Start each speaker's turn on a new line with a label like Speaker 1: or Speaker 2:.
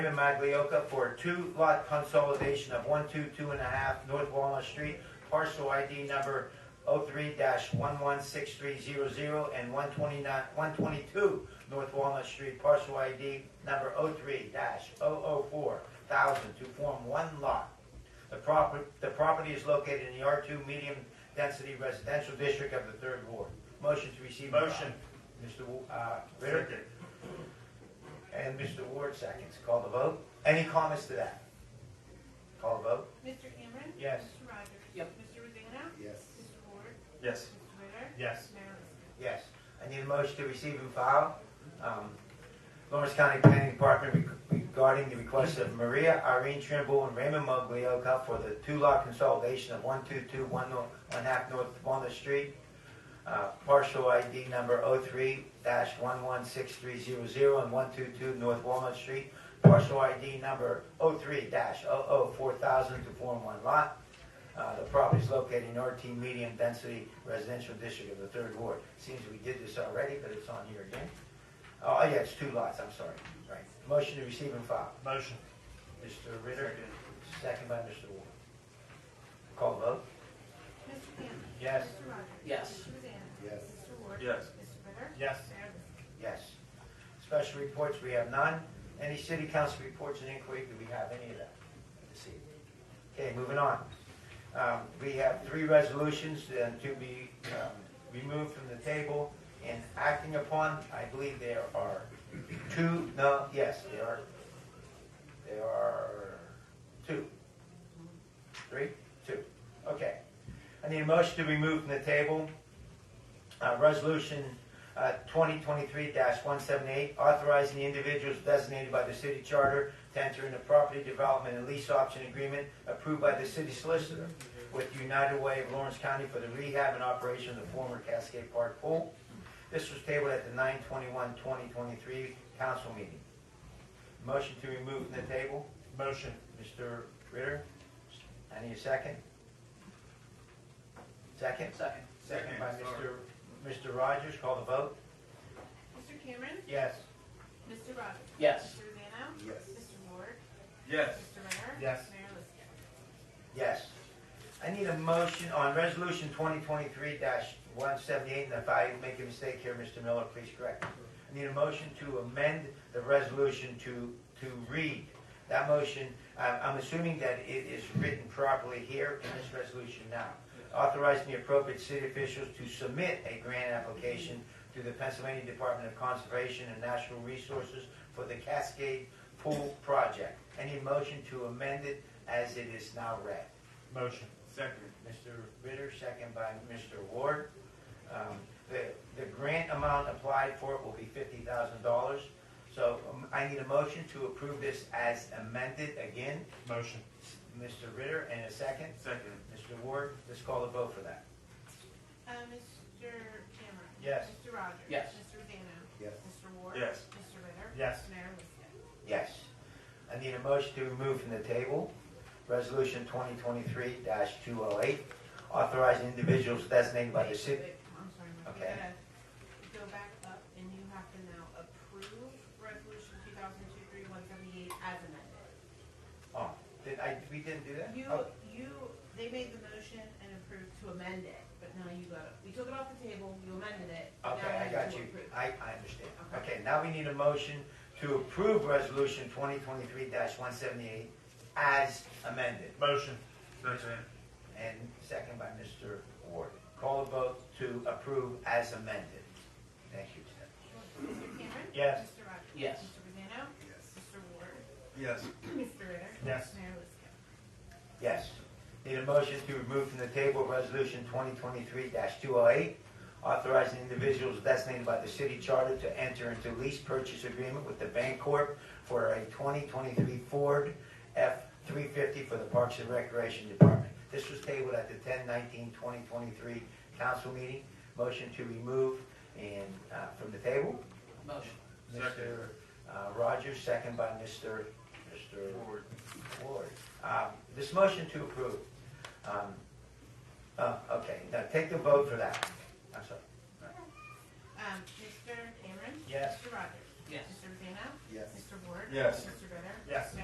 Speaker 1: Raymond Maglioka for two lot consolidation of one two two and a half North Walnut Street, parcel ID number 3 one one six three zero zero and one twenty-nine, one twenty-two North Walnut Street, parcel ID number oh 3 4 oh thousand to form one lot. The property, the property is located in the R two medium density residential district of the third ward. Motion to receive. and file.
Speaker 2: Motion.
Speaker 1: Mr. Wu- uh, Ritter? And Mr. Ward seconds. Call the vote. Any comments to that? Call the vote.
Speaker 3: Mr. Cameron.
Speaker 1: Yes.
Speaker 3: Mr. Rogers.
Speaker 4: Yep.
Speaker 3: Mr. Rosanna.
Speaker 5: Yes.
Speaker 3: Mr. Ward.
Speaker 2: Yes.
Speaker 3: Mr. Ritter.
Speaker 2: Yes.
Speaker 3: Mayor Liscan.
Speaker 1: Yes. I need a motion to receive and file. um, Lawrence County Planning Department reg- regarding the request of Maria Irene Trimble and Raymond Muglioka for the two-lot consolidation of 122 one nor- one half North Walnut Street, uh, parcel ID number 03-11630 and 122 North Walnut Street, parcel ID number 03-004,000 to form one lot. Uh, The property is located in RT Medium Density Residential District of the Third Ward. Seems we did this already, but it's on here again. Oh, yeah, it's two lots, I'm sorry. Right. Motion to receive and file.
Speaker 2: Motion.
Speaker 1: Mr. Ritter, second by Mr. Ward. Call vote?
Speaker 3: Mr. Cameron.
Speaker 1: Yes.
Speaker 3: Mr. Rogers.
Speaker 4: Yes.
Speaker 3: Mr. Rosanna.
Speaker 5: Yes.
Speaker 3: Mr. Ward.
Speaker 2: Yes.
Speaker 3: Mr. Ritter.
Speaker 2: Yes.
Speaker 3: Mayor Liscan.
Speaker 1: Yes. Special reports, we have none. Any city council reports and inquiry, do we have any of that this evening? Okay, moving on. Um, We have three resolutions uh, to be um, removed from the table and acting upon. I believe there are two, no, yes, there are, there are two. Three? Two. Okay. I need a motion to remove from the table uh, Resolution uh, 2023-178, authorizing the individuals designated by the city charter to enter into property development and lease option agreement approved by the city solicitor with United Way of Lawrence County for the rehab and operation of the former Cascade Park pool. This was tabled at the 9/21/2023 council meeting. Motion to remove from the table,
Speaker 2: Motion.
Speaker 1: Mr. Ritter. I need a second. Second?
Speaker 4: Second.
Speaker 1: Second by Mr.
Speaker 2: Sorry.
Speaker 1: Mr. Rogers, call the vote.
Speaker 3: Mr. Cameron.
Speaker 1: Yes.
Speaker 3: Mr. Rogers.
Speaker 4: Yes.
Speaker 3: Mr. Rosanna.
Speaker 5: Yes.
Speaker 3: Mr. Ward.
Speaker 2: Yes.
Speaker 3: Mr. Ritter.
Speaker 2: Yes.
Speaker 3: Mayor Liscan.
Speaker 1: Yes. I need a motion on resolution twenty twenty-three one seventy-eight, and if I make a mistake here, Mr. Miller, please correct. me. I need a motion to amend the resolution to, to read. That motion, I- I'm assuming that it is written properly here in this resolution now. Authorizing the appropriate city officials to submit a grant application to the Pennsylvania Department of Conservation and Natural Resources for the Cascade Pool Project. Any motion to amend it as it is now read.
Speaker 2: Motion. Second.
Speaker 1: Mr. Ritter, second by Mr. Ward. Um, The, the grant amount applied for it will be fifty thousand dollars. So um, I need a motion to approve this as amended again.
Speaker 2: Motion.
Speaker 1: Mr. Ritter, and a second.
Speaker 2: Second.
Speaker 1: Mr. Ward, let's call the vote for that.
Speaker 3: Uh, Mr. Cameron.
Speaker 1: Yes.
Speaker 3: Mr. Rogers.
Speaker 4: Yes.
Speaker 3: Mr. Rosanna.
Speaker 5: Yes.
Speaker 3: Mr. Ward.
Speaker 2: Yes.
Speaker 3: Mr. Ritter.
Speaker 2: Yes.
Speaker 3: Mayor Liscan.
Speaker 1: Yes. I need a motion to remove from the table Resolution twenty twenty-three two oh eight, authorizing individuals designated by the
Speaker 3: Wait,
Speaker 1: city.
Speaker 3: wait, I'm sorry, Mike, we
Speaker 1: Okay.
Speaker 3: gotta go back up, and you have to now approve resolution two thousand two three one seventy-eight as amended.
Speaker 1: Oh, did I, we didn't do that?
Speaker 3: You,
Speaker 1: Oh,
Speaker 3: you, they made the motion and approved to amend it, but now you gotta, we took it off the table, you amended it. now we
Speaker 1: Okay, I
Speaker 3: have
Speaker 1: got
Speaker 3: to
Speaker 1: you.
Speaker 3: approve.
Speaker 1: I, I understand.
Speaker 3: Okay.
Speaker 1: Okay, now we need a motion to approve Resolution 2023-178 as amended,
Speaker 2: Motion. Second.
Speaker 1: and second by Mr. Ward. Call a vote to approve as amended. Thank you, Ted.
Speaker 3: Mr. Cameron?
Speaker 1: Yes.
Speaker 3: Mr. Rogers?
Speaker 4: Yes.
Speaker 3: Mr. Vazano?
Speaker 5: Yes.
Speaker 3: Mr. Ward?
Speaker 2: Yes.
Speaker 3: Mr. Ritter?
Speaker 2: Yes.
Speaker 3: Mayor Liscan?
Speaker 1: Yes. Need a motion to remove from the table Resolution 2023-208, authorizing individuals designated by the city charter to enter into lease purchase agreement with the Bancorp for a 2023 Ford F-350 for the Parks and Recreation Department. This was tabled at the 10/19/2023 council meeting. Motion to remove and, uh, from the table.
Speaker 4: Motion.
Speaker 2: Second.
Speaker 1: Mr. uh, Rogers, second by Mr. Mr.
Speaker 2: Forward.
Speaker 1: Ward. Um, This motion to approve, um, uh, okay, now take the vote for that. I'm sorry.
Speaker 3: Um, Mr. Cameron?
Speaker 1: Yes.
Speaker 3: Mr. Rogers?
Speaker 4: Yes.
Speaker 3: Mr. Vazano?
Speaker 5: Yes.
Speaker 3: Mr. Ward?
Speaker 2: Yes.
Speaker 3: Mr. Ritter?
Speaker 2: Yes.